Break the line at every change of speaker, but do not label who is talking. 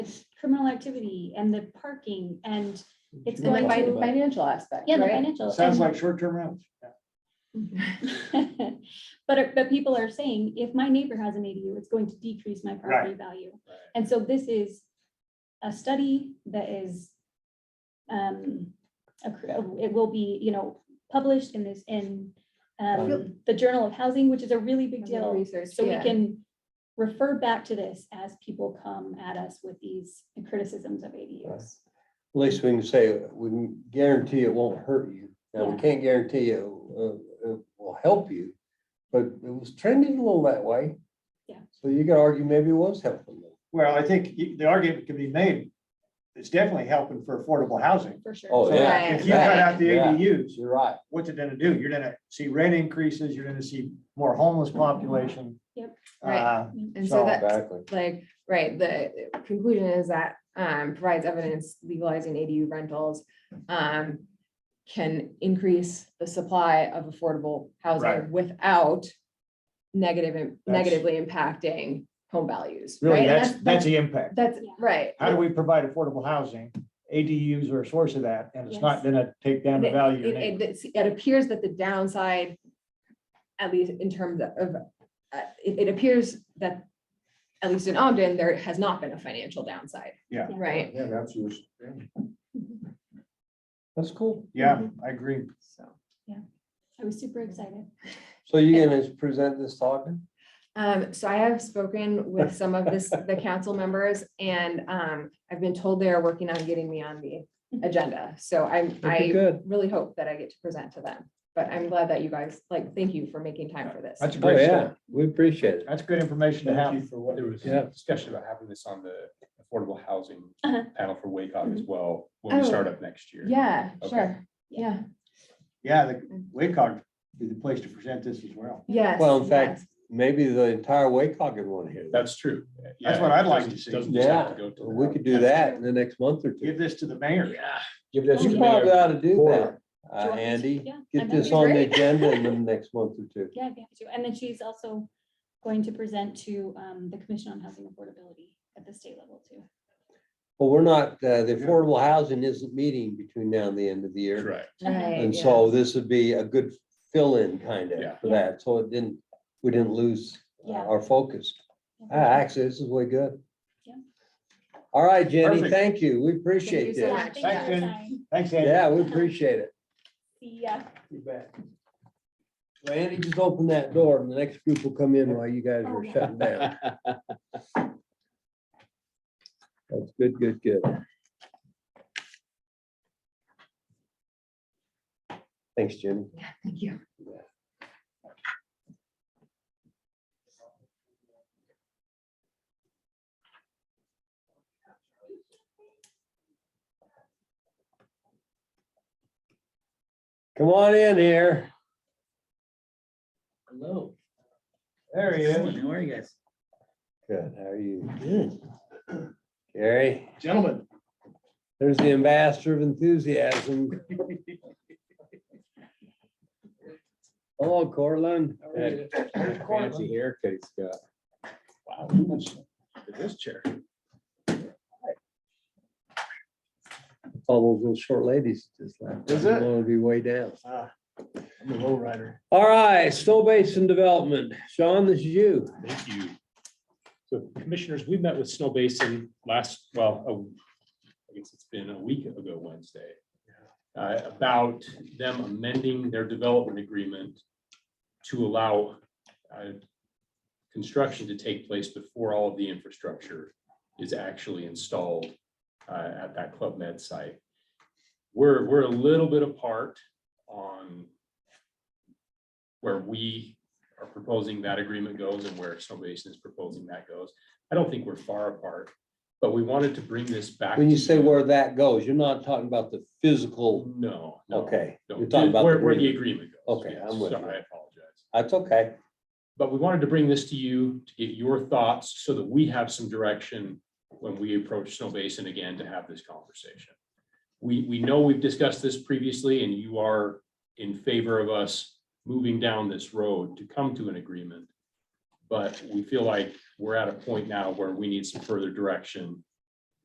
criminal activity and the parking and it's
And the
going
fin-
to,
financial aspect,
yeah, the
right? Mm-hmm.
financial.
Sounds
and-
like short-term rentals.
But, but people are saying, if my neighbor has an ADU, it's going to decrease my property value. And so this is a study that is, um, a cr- it will be, you know, published in this, in, um, the Journal of Housing, which is a really big
Under
deal.
research,
So we
yeah.
can refer back to this as people come at us with these criticisms of ADUs.
least we can say, we can guarantee it won't hurt you. Now, we
Yeah.
can't guarantee it, uh, it will help you, but it was trending a little that way.
Yeah.
So you could argue maybe it was helping them.
Well, I think y- the argument can be made, it's definitely helping for affordable housing.
For sure.
Oh,
So
yeah.
If you cut out the
Yeah.
ADUs,
You're right.
what's it gonna do? You're gonna see rent increases, you're gonna see more homeless population.
Yep.
Uh,
And so
So-
that's
Exactly.
like, right, the conclusion is that um provides evidence legalizing ADU rentals. Um, can increase the supply of affordable
Right.
housing without negative,
That's-
negatively impacting home values.
Really,
right? And
that's, that's the impact.
That's,
Yeah.
right.
How do we provide affordable housing? ADUs are a source of that, and it's
Yes.
not gonna take down the
It-
value. of your
It,
neighbor.
it, it appears that the downside, at least in terms of, uh, it, it appears that, at least in Ogden, there has not been a financial downside.
Yeah.
Right,
Yeah, that's yours. That's cool.
Yeah, I agree.
so,
I was super excited.
So you're gonna present this talk?
um, so I have spoken with some of this, the council members, and, um, I've been told they are working on getting me on the agenda, so I'm, I
Good.
really hope that I get to present to them, but I'm glad that you guys, like, thank you for making time for this.
That's a
Oh,
great
yeah,
start.
we appreciate it.
That's good information to
Thank you
have.
for what, there was
Yeah.
discussion about having this on the affordable housing
Uh-huh.
panel for Wake Up as well, when we
Oh.
start up next year.
Yeah,
Okay.
sure, yeah,
Yeah, the WACOG is the place to present this as well.
yes.
Well, in fact,
yes.
Maybe the entire Wacog would want to hear that.
That's true.
That's
Yeah,
what I'd like
doesn't-
to see.
doesn't just have
Yeah,
to go to the-
we could do that in the next month or
Give
two.
this to the mayor.
Yeah.
Give this.
to
You
the
probably
mayor.
ought to do that,
Or-
uh,
Joyce,
Andy.
yeah, I
Get
know.
this
He's
on the
great.
agenda in the next month or two.
Yeah, I'd be happy to. And then she's also going to present to um, the Commission on Housing Affordability at the state level too.
But we're not, uh, the affordable housing isn't meeting between now and the end of the year.
Correct.
Right,
And
yeah.
so this would be a good fill-in kind
Yeah.
of for that. So it didn't, we didn't lose uh,
Yeah.
our focus. Ah, Actually, this is way good.
Yeah.
All right, Jenny,
Perfect.
thank you. We
you
appreciate
so
this.
much.
Yeah, thanks for your
Thanks, Jen.
time.
Thanks, Andy.
Yeah, we appreciate it.
See ya.
You bet.
So Andy, just open that door and the next group will come in while you guys
Oh,
are
yeah.
shutting down. That's good, good, good. Thanks, Jenny.
Yeah, thank you.
Come on in here.
Hello.
There he is.
How are you guys?
Good, how are you? Good. Gary,
Gentlemen.
there's the ambassador of enthusiasm. Hello, Cortland.
Fancy haircut he's got.
Wow, who was- did this chair.
All those little short ladies just like.
Is it?
Want to be way down.
uh, I'm a low rider.
All right, Snow Basin Development. Sean, this is you.
Thank you. So commissioners, we met with Snow Basin last, well, a- I guess it's been a week ago Wednesday. uh, About them amending their development agreement to allow uh, construction to take place before all of the infrastructure is actually installed uh, at that Club Med site. We're, we're a little bit apart on where we are proposing that agreement goes and where Snow Basin is proposing that goes. I don't think we're far apart, but we wanted to bring this back.
When you
to
say where that goes, you're not talking about the physical,
No. no,
okay,
no.
you're talking about.
Where,
the
where the
agreement.
agreement goes.
Okay,
yes.
I'm with
Sorry,
you.
I apologize.
That's okay.
But we wanted to bring this to you to get your thoughts so that we have some direction when we approach Snow Basin again to have this conversation. We, we know we've discussed this previously and you are in favor of us moving down this road to come to an agreement. But we feel like we're at a point now where we need some further direction